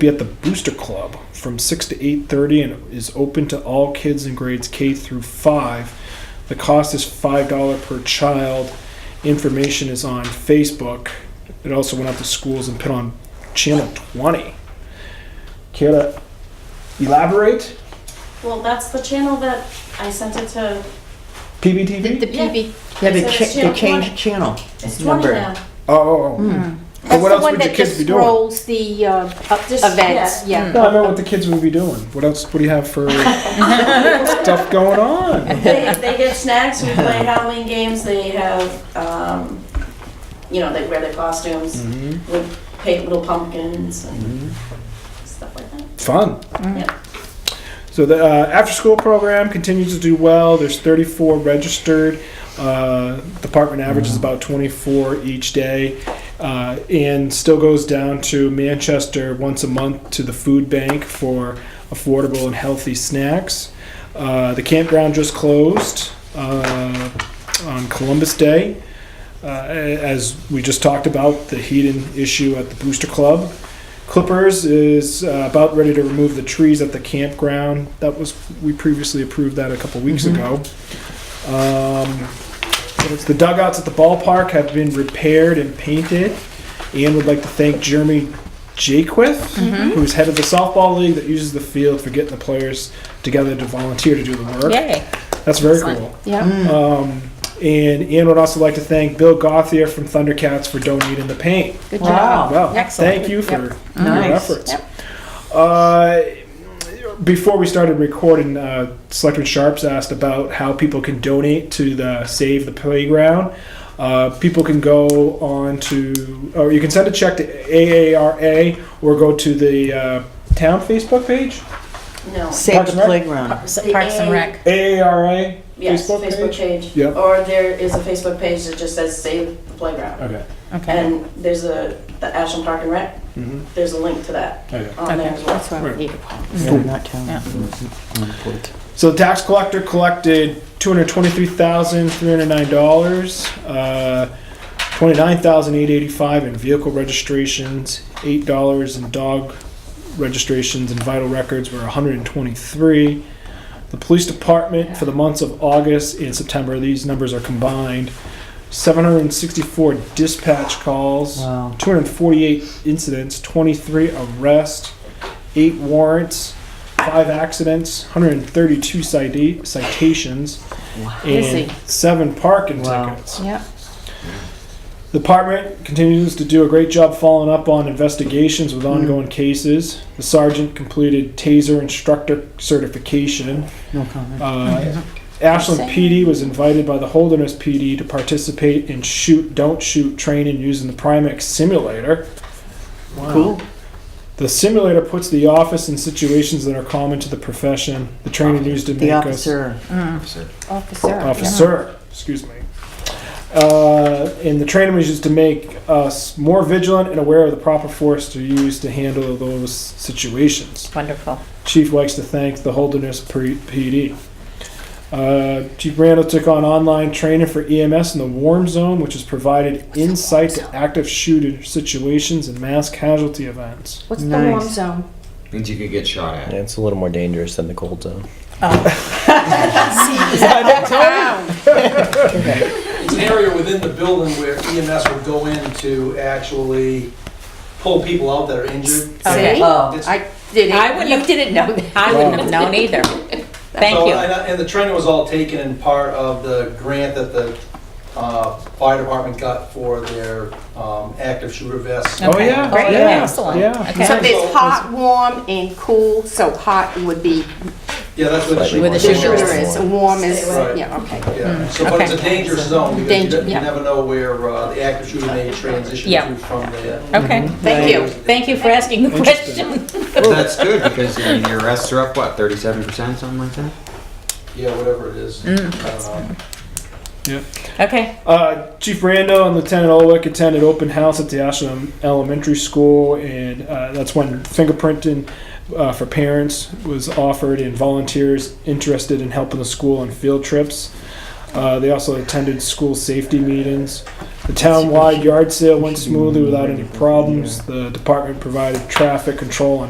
be at the Booster Club from six to eight thirty, and it is open to all kids in grades K through five. The cost is five dollar per child. Information is on Facebook. It also went out to schools and put on channel twenty. Care to elaborate? Well, that's the channel that I sent it to. The, PBTV. the PB, Yeah, they, So cha- it's channel they changed the 20. channel. It's 20 Number. now. Oh, oh, oh. Hmm. That's what the else one would your that kids just be doing? scrolls the uh, Oh, Mm. up- Just- events, yeah. No, I know what the kids would be doing. What else? What do you have for stuff going on? They, they get snacks, we play Halloween games, they have, um, you know, they wear their Mm. costumes, Mm-hmm, we paint little pumpkins and Mm-hmm. stuff like that. Fun. Yeah. So the uh, after-school program continues to do well. There's 34 registered. Uh, department average is about 24 each day, uh, and still goes down to Manchester once a month to the food bank for affordable and healthy snacks. Uh, the campground just closed uh, on Columbus Day. Uh, a- as we just talked about, the heating issue at the Booster Club. Clippers is uh, about ready to remove the trees at the campground. That was we previously approved that a couple weeks ago. Um, so it's the dugouts at the ballpark have been repaired and painted. And would like to thank Jeremy Jaquith, who's head of the softball league that uses the field for getting the players together to volunteer to do the work. yay. That's very Excellent. cool. Yeah. Um, and Ian would also like to thank Bill Gothier from Thundercats for donating the paint. Good Wow. job. Well, Excellent. thank you for Yep. your Nice. efforts. Uh, before we started recording, uh, Selectman Sharps asked about how people can donate to the Save the Playground. Uh, people can go on to, or you can send a check to AARA or go to the uh, town Facebook page, No, Save Parks the and Rec? playground. The Parks and Rec. AARA. yes, Facebook Facebook page. Yep. Or there is a Facebook page that just says Save the Playground. Okay. Okay. And there's a, the Ashland Park and Rec, Mm-hmm. there's a link to that okay. on there Okay. as well. That's why Right. we need it. Yeah, not town. Yeah. So the tax collector collected two hundred twenty-three thousand three hundred nine dollars, uh, twenty-nine thousand eight eighty-five in vehicle registrations, eight dollars in dog registrations, and vital records were one hundred and twenty-three. The police department for the months of August and September, these numbers are combined, seven hundred and sixty-four dispatch calls. Wow. 248 incidents, 23 arrests, 8 warrants, 5 accidents, 132 cita- citations, and Busy. 7 parking Wow. tickets. Yeah. The department continues to do a great job following up on investigations with ongoing cases. The sergeant completed taser instructor certification. No comment. Uh, Ashland PD was invited by the Holderness PD to participate in shoot, don't shoot training using the Primex simulator. Cool. The simulator puts the office in situations that are common to the profession. The training used to The make us officer. Mm. Officer. officer. Excuse me. Uh, and the training was used to make us more vigilant and aware of the proper force to use to handle those situations. Wonderful. Chief likes to thank the Holderness P- PD. Uh, Chief Randall took on online training for EMS in the warm zone, which has provided insight to active shooter situations and mass casualty events. What's the Nice. warm zone? Means you could get shot at. Yeah, it's a little more dangerous than the cold zone. It's an area within the building where EMS would go in to actually pull people out that are injured. Um, Okay. See? Oh. It's- I I didn't, wouldn't you have- didn't know that. I wouldn't have known either. Thank So, you. And uh, and the training was all taken in part of the grant that the uh, fire department got for their um, active shooter vests. Okay, Oh, yeah. Great, Yeah. excellent. Yeah. Okay. So there's hot, warm, and cool, so hot would be, Yeah, that's what the Where the the Slightly more shooter. Sure. sugar dangerous. is, warm is, Stay away. yeah, okay. Yeah, Hmm. so, but it's a Okay. dangerous zone because you Danger, don't- you yeah. never know where uh, the active shooter may transition Yeah. to from there. Okay, Mm-hmm. thank you. Thank you for asking the Interesting. question. Well, that's good because I mean, your arrests are up, what, 37%, something like that? Yeah, whatever it is. Hmm. I Mm. don't know. Okay, Uh, Chief Rando and Lieutenant Olwick attended open house at the Ashland Elementary School, and uh, that's when fingerprinting uh, for parents was offered, and volunteers interested in helping the school on field trips. Uh, they also attended school safety meetings. The town-wide yard sale went smoothly without any problems. The department provided traffic control and